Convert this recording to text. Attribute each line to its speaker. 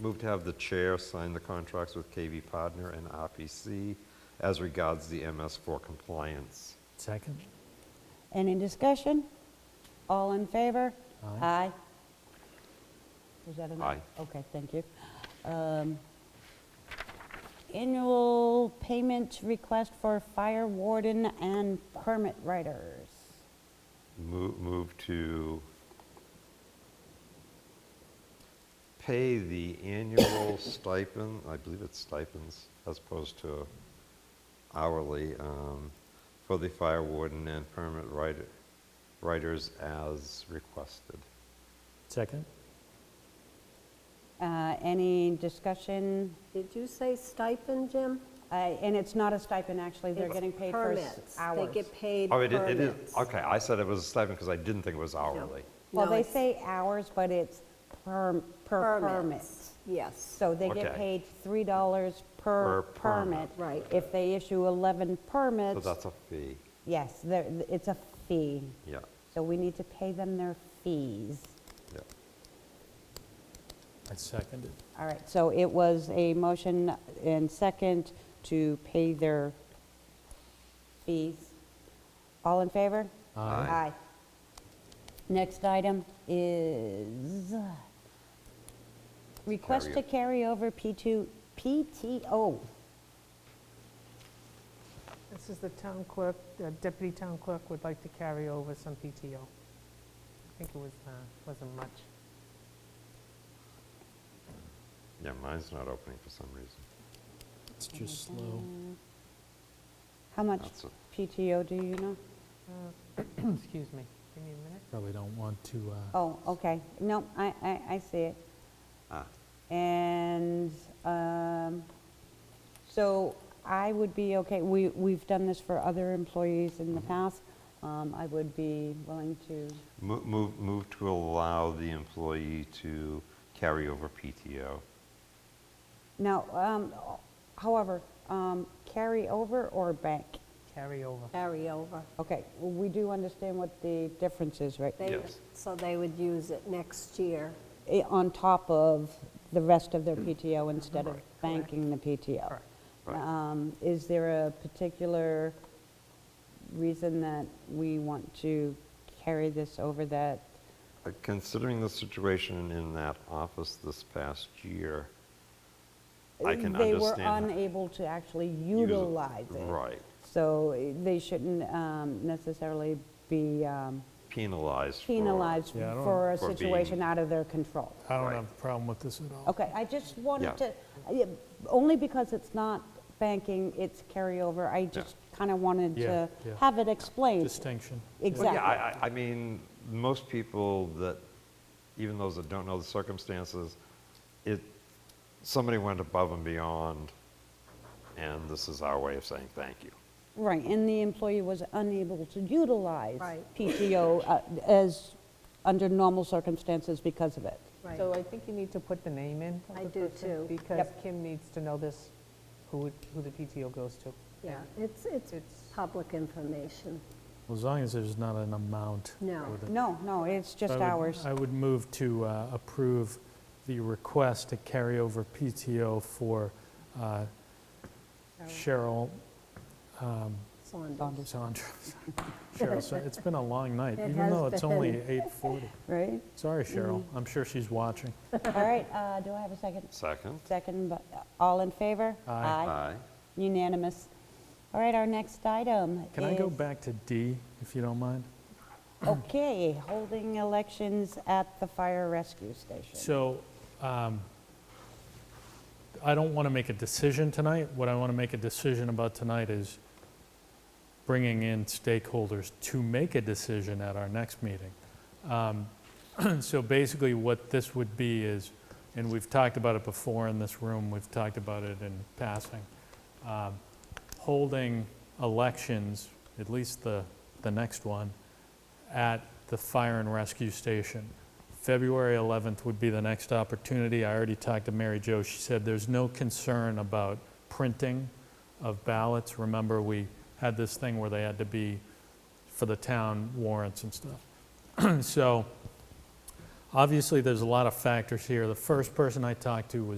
Speaker 1: Move to have the chair sign the contracts with KV Podner and RPC as regards the MS4 compliance.
Speaker 2: Second?
Speaker 3: Any discussion? All in favor?
Speaker 2: Aye.
Speaker 3: Is that enough?
Speaker 1: Aye.
Speaker 3: Okay, thank you. Um, Annual payment request for fire warden and permit writers.
Speaker 1: Mo- Move to pay the annual stipend, I believe it's stipends, as opposed to hourly, um, for the fire warden and permit writer- writers as requested.
Speaker 2: Second?
Speaker 3: Uh, Any discussion?
Speaker 4: Did you say stipend, Jim?
Speaker 3: Uh, And it's not a stipend, actually, they're
Speaker 4: It's
Speaker 3: getting paid for s-
Speaker 4: permits.
Speaker 3: hours.
Speaker 4: They get paid
Speaker 1: Oh, it i- it is,
Speaker 4: permits.
Speaker 1: okay, I said it was a stipend because I didn't think it was hourly.
Speaker 3: Well,
Speaker 4: No,
Speaker 3: they
Speaker 4: it's
Speaker 3: say hours, but it's per per permit.
Speaker 4: Permits, yes.
Speaker 3: So they get
Speaker 1: Okay.
Speaker 3: paid $3 per
Speaker 1: Per permit.
Speaker 3: permit.
Speaker 4: Right.
Speaker 3: If they issue 11
Speaker 1: So
Speaker 3: permits,
Speaker 1: that's a fee,
Speaker 3: yes, there- it's a fee.
Speaker 1: yeah,
Speaker 3: So we need to pay them their fees.
Speaker 1: yeah.
Speaker 2: I seconded.
Speaker 3: All right, so it was a motion and second to pay their fees. All in favor?
Speaker 1: Aye.
Speaker 3: Next item is request to carry over P2, PTO.
Speaker 5: This is the town clerk, the deputy town clerk would like to carry over some PTO. I think it was, uh, wasn't much.
Speaker 1: Yeah, mine's not opening for some reason.
Speaker 2: It's just slow.
Speaker 3: How much
Speaker 1: That's a-
Speaker 3: PTO do you know?
Speaker 5: Excuse me, give me a minute.
Speaker 2: Probably don't want to, uh,
Speaker 3: Oh, okay, no, I, I, I see it.
Speaker 1: Ah,
Speaker 3: And um, so I would be okay, we, we've done this for other employees in the
Speaker 1: Mm-hmm.
Speaker 3: past. Um, I would be willing to,
Speaker 1: Mo- Move, move to allow the employee to carry over PTO.
Speaker 3: now, um, however, um, carry over or bank?
Speaker 5: Carry over.
Speaker 4: Carry over.
Speaker 3: Okay, we do understand what the difference is, right?
Speaker 4: They-
Speaker 1: Yes.
Speaker 4: So they would use it next year.
Speaker 3: i- eh, on top of the rest of
Speaker 1: Mm.
Speaker 3: their PTO instead of banking the PTO.
Speaker 5: Correct.
Speaker 1: Right.
Speaker 3: Um, Is there a particular reason that we want to carry this over that?
Speaker 1: Uh, Considering the situation in that office this past year, I can
Speaker 3: They were
Speaker 1: understand that.
Speaker 3: unable to actually
Speaker 1: Use it-
Speaker 3: utilize it.
Speaker 1: Right,
Speaker 3: So eh, they shouldn't um, necessarily be um,
Speaker 1: penalized for.
Speaker 3: penalized
Speaker 2: Yeah, I don't-
Speaker 3: for a
Speaker 1: For being-
Speaker 3: situation out of their control.
Speaker 2: I don't
Speaker 1: Right.
Speaker 2: have a problem with this at all.
Speaker 3: Okay, I just wanted
Speaker 1: Yeah.
Speaker 3: to, yeah, only because it's not banking, it's carryover, I just kind of wanted
Speaker 2: Yeah,
Speaker 3: to
Speaker 2: yeah.
Speaker 3: have it explained.
Speaker 2: Distinction.
Speaker 1: Well,
Speaker 3: Exactly.
Speaker 1: yeah, I, I- I mean, most people that, even those that don't know the circumstances, it, somebody went above and beyond, and this is our way of saying thank you.
Speaker 3: Right, and the employee was unable to utilize
Speaker 4: Right.
Speaker 3: PTO uh, as, under normal circumstances because of it.
Speaker 4: Right.
Speaker 5: So I think you need to put the name in of
Speaker 4: I
Speaker 5: the
Speaker 4: do
Speaker 5: person,
Speaker 4: too.
Speaker 5: Because
Speaker 3: Yep.
Speaker 5: Kim needs to know this, who, it- who the PTO goes to.
Speaker 4: Yeah, it's, it's
Speaker 5: It's-
Speaker 4: public information.
Speaker 2: As long as there's not an amount.
Speaker 4: No.
Speaker 2: with it.
Speaker 3: No, no, it's just
Speaker 2: I would-
Speaker 3: hours.
Speaker 2: I would move to uh, approve the request to carry over PTO for uh, Cheryl
Speaker 4: Saunders.
Speaker 2: Saunders. Cheryl, Sa- it's been a long night,
Speaker 4: It
Speaker 2: even
Speaker 4: has
Speaker 2: though it's only
Speaker 4: been. Mm-hmm.
Speaker 2: 8:40.
Speaker 3: Right?
Speaker 2: Sorry, Cheryl, I'm sure she's watching.
Speaker 3: All right, uh, do I have a second?
Speaker 1: Second?
Speaker 3: Second, but, uh, all in favor?
Speaker 2: Aye.
Speaker 1: Aye.
Speaker 3: Unanimous. All right, our next item
Speaker 2: Can I go
Speaker 3: is-
Speaker 2: back to D, if you don't mind?
Speaker 3: Okay, holding elections at the fire rescue station.
Speaker 2: So um, I don't want to make a decision tonight. What I want to make a decision about tonight is bringing in stakeholders to make a decision at our next meeting. Um, So basically, what this would be is, and we've talked about it before in this room, we've talked about it in passing, um, holding elections, at least the, the next one, at the fire and rescue station. February 11th would be the next opportunity. I already talked to Mary Jo. She said there's no concern about printing of ballots. Remember, we had this thing where they had to be for the town warrants and stuff. So Obviously, there's a lot of factors here. The first person I talked to was